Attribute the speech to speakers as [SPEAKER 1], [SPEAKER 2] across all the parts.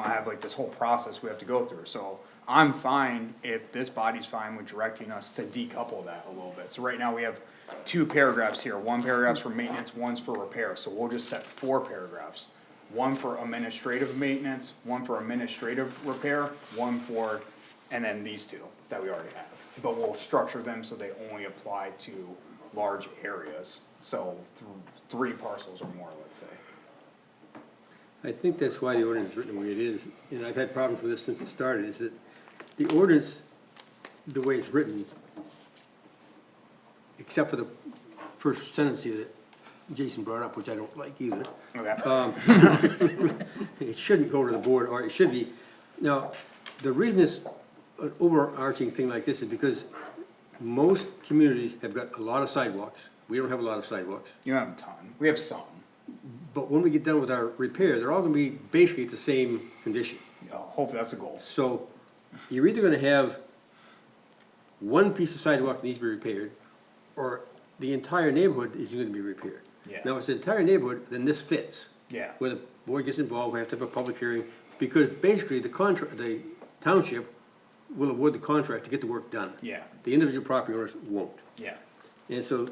[SPEAKER 1] have like this whole process we have to go through, so. I'm fine if this body's fine with directing us to decouple that a little bit, so right now we have two paragraphs here, one paragraph's for maintenance, one's for repair, so we'll just set four paragraphs. One for administrative maintenance, one for administrative repair, one for, and then these two that we already have. But we'll structure them so they only apply to large areas, so th- three parcels or more, let's say.
[SPEAKER 2] I think that's why the ordinance is written the way it is, and I've had problems with this since it started, is that the ordinance, the way it's written, except for the first sentence here that Jason brought up, which I don't like either, Um,
[SPEAKER 1] Okay,
[SPEAKER 2] it shouldn't go to the board, or it should be. Now, the reason it's an overarching thing like this is because most communities have got a lot of sidewalks. We don't have a lot of sidewalks.
[SPEAKER 1] you don't have a ton, we have some,
[SPEAKER 2] But when we get done with our repair, they're all gonna be basically the same condition.
[SPEAKER 1] You know, hopefully that's a goal.
[SPEAKER 2] So you're either gonna have one piece of sidewalk needs to be repaired, or the entire neighborhood is gonna be repaired.
[SPEAKER 1] Yeah.
[SPEAKER 2] Now, if it's the entire neighborhood, then this fits.
[SPEAKER 1] Yeah.
[SPEAKER 2] Where the board gets involved, we have to have a public hearing, because basically the contract, the township will award the contract to get the work done.
[SPEAKER 1] Yeah.
[SPEAKER 2] The individual property owners won't.
[SPEAKER 1] Yeah,
[SPEAKER 2] And so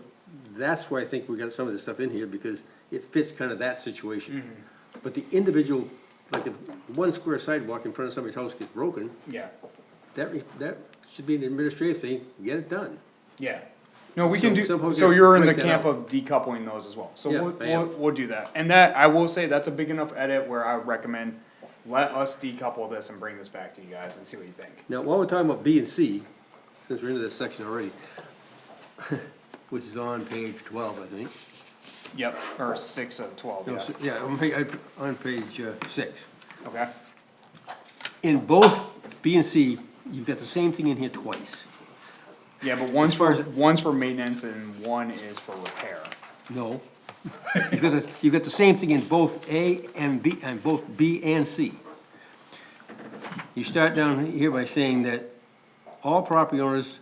[SPEAKER 2] that's why I think we got some of this stuff in here, because it fits kind of that situation. But the individual, like if one square sidewalk in front of somebody's house gets broken,
[SPEAKER 1] yeah,
[SPEAKER 2] that, re- that should be an administrative thing, get it done.
[SPEAKER 1] yeah. No, we can
[SPEAKER 2] So
[SPEAKER 1] do,
[SPEAKER 2] somehow
[SPEAKER 1] so
[SPEAKER 2] we
[SPEAKER 1] you're in the
[SPEAKER 2] break that
[SPEAKER 1] camp
[SPEAKER 2] out.
[SPEAKER 1] of decoupling those as well, so
[SPEAKER 2] Yeah,
[SPEAKER 1] we'll,
[SPEAKER 2] I
[SPEAKER 1] we'll,
[SPEAKER 2] am.
[SPEAKER 1] we'll do that. And that, I will say, that's a big enough edit where I recommend, let us decouple this and bring this back to you guys and see what you think.
[SPEAKER 2] Now, while we're talking about B and C, since we're into this section already, which is on page twelve, I think.
[SPEAKER 1] Yep, or six of twelve,
[SPEAKER 2] No,
[SPEAKER 1] yeah,
[SPEAKER 2] s- Yeah, on page, on page uh, six.
[SPEAKER 1] okay,
[SPEAKER 2] In both B and C, you've got the same thing in here twice.
[SPEAKER 1] yeah, but one's
[SPEAKER 2] far
[SPEAKER 1] for,
[SPEAKER 2] as-
[SPEAKER 1] one's for maintenance and one is for repair.
[SPEAKER 2] No. You've got, the- you've got the same thing in both A and B, and both B and C. You start down here by saying that all property owners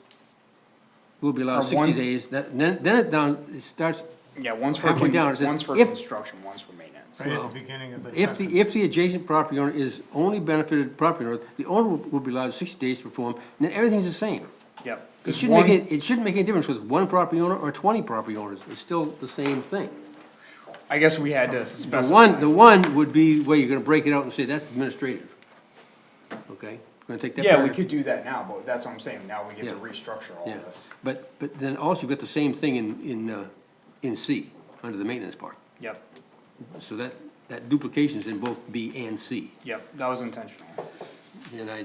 [SPEAKER 2] will be allowed
[SPEAKER 1] Or one-
[SPEAKER 2] sixty days, that- then, then it down, it starts,
[SPEAKER 1] Yeah, one's for,
[SPEAKER 2] Halfway
[SPEAKER 1] con-
[SPEAKER 2] down, it says,
[SPEAKER 1] one's for
[SPEAKER 2] if-
[SPEAKER 1] construction, one's for maintenance,
[SPEAKER 3] Right at the beginning of the
[SPEAKER 2] if
[SPEAKER 3] sentence.
[SPEAKER 2] the, if the adjacent property owner is only benefited property owner, the owner will will be allowed sixty days to perform, and then everything's the same.
[SPEAKER 1] yep.
[SPEAKER 2] It
[SPEAKER 1] 'Cause
[SPEAKER 2] shouldn't
[SPEAKER 1] one-
[SPEAKER 2] make, it, it shouldn't make any difference with one property owner or twenty property owners, it's still the same thing.
[SPEAKER 1] I guess we had to
[SPEAKER 2] The
[SPEAKER 1] specify.
[SPEAKER 2] one, the one would be where you're gonna break it out and say, that's administrative. Okay, gonna take that.
[SPEAKER 1] Yeah, we
[SPEAKER 2] paragraph-
[SPEAKER 1] could do that now, but that's what I'm saying, now we get to
[SPEAKER 2] Yeah.
[SPEAKER 1] restructure all
[SPEAKER 2] Yeah,
[SPEAKER 1] of this.
[SPEAKER 2] but, but then also you've got the same thing in, in, uh, in C, under the maintenance part.
[SPEAKER 1] Yep,
[SPEAKER 2] So that, that duplication's in both B and C,
[SPEAKER 1] yep, that was intentional.
[SPEAKER 2] and I,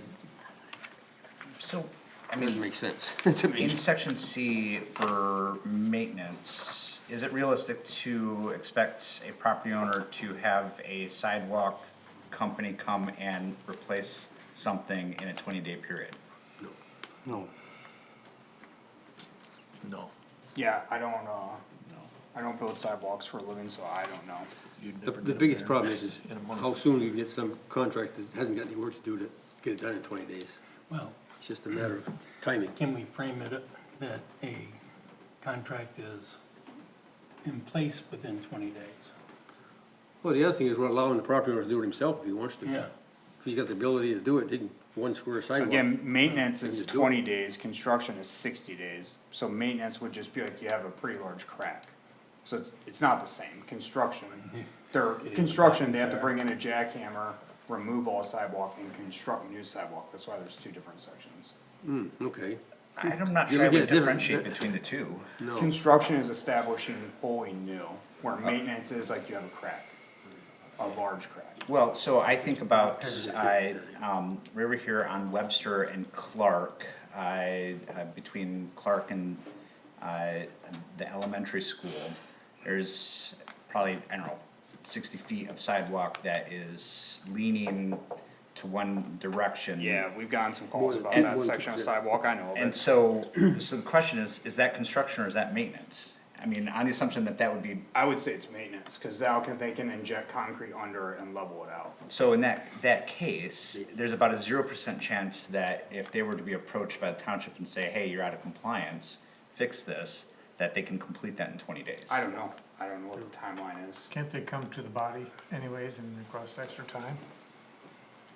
[SPEAKER 4] So, I
[SPEAKER 2] doesn't
[SPEAKER 4] mean,
[SPEAKER 2] make sense to me.
[SPEAKER 4] in section C for maintenance, is it realistic to expect a property owner to have a sidewalk company come and replace something in a twenty-day period?
[SPEAKER 2] No.
[SPEAKER 5] No,
[SPEAKER 1] Yeah, I don't, uh, I don't build sidewalks for a living, so I don't know.
[SPEAKER 5] you'd
[SPEAKER 2] The,
[SPEAKER 5] never
[SPEAKER 2] the
[SPEAKER 5] get a
[SPEAKER 2] biggest problem
[SPEAKER 5] variance
[SPEAKER 2] is, is
[SPEAKER 5] in a month.
[SPEAKER 2] how soon you can get some contract that hasn't got any work to do to get it done in twenty days.
[SPEAKER 6] Well,
[SPEAKER 2] It's just a matter of timing.
[SPEAKER 6] can we frame it up that a contract is in place within twenty days?
[SPEAKER 2] Well, the other thing is we're allowing the property owner to do it himself if he wants to.
[SPEAKER 6] Yeah.
[SPEAKER 2] If he's got the ability to do it, he can, one square sidewalk.
[SPEAKER 1] Again, maintenance is
[SPEAKER 2] Things to do.
[SPEAKER 1] twenty days, construction is sixty days, so maintenance would just be like you have a pretty large crack. So it's, it's not the same, construction, they're, construction, they have to bring in a jackhammer, remove all sidewalk and construct new sidewalk, that's why there's two different sections.
[SPEAKER 2] Okay,
[SPEAKER 4] I'm not
[SPEAKER 2] You
[SPEAKER 4] sure I
[SPEAKER 2] would
[SPEAKER 4] would
[SPEAKER 2] get a different-
[SPEAKER 4] differentiate between the two.
[SPEAKER 2] no,
[SPEAKER 1] Construction is establishing fully new, where maintenance is like you have a crack, a large crack.
[SPEAKER 4] Well, so I think about, I, um, we were here on Webster and Clark, I, uh, between Clark and, uh, the elementary school, there's probably, I don't know, sixty feet of sidewalk that is leaning to one direction.
[SPEAKER 1] Yeah, we've gotten some calls about
[SPEAKER 2] and
[SPEAKER 1] that
[SPEAKER 2] one
[SPEAKER 1] section of
[SPEAKER 2] could-
[SPEAKER 1] sidewalk, I know of
[SPEAKER 4] And
[SPEAKER 1] it.
[SPEAKER 4] so, so the question is, is that construction or is that maintenance? I mean, on the assumption that that would be,
[SPEAKER 1] I would say it's maintenance, cause now can, they can inject concrete under it and level it out.
[SPEAKER 4] so in that, that case, there's about a zero percent chance that if they were to be approached by the township and say, hey, you're out of compliance, fix this, that they can complete that in twenty days.
[SPEAKER 1] I don't know, I don't know what the timeline is.
[SPEAKER 3] Can't they come to the body anyways and request extra time?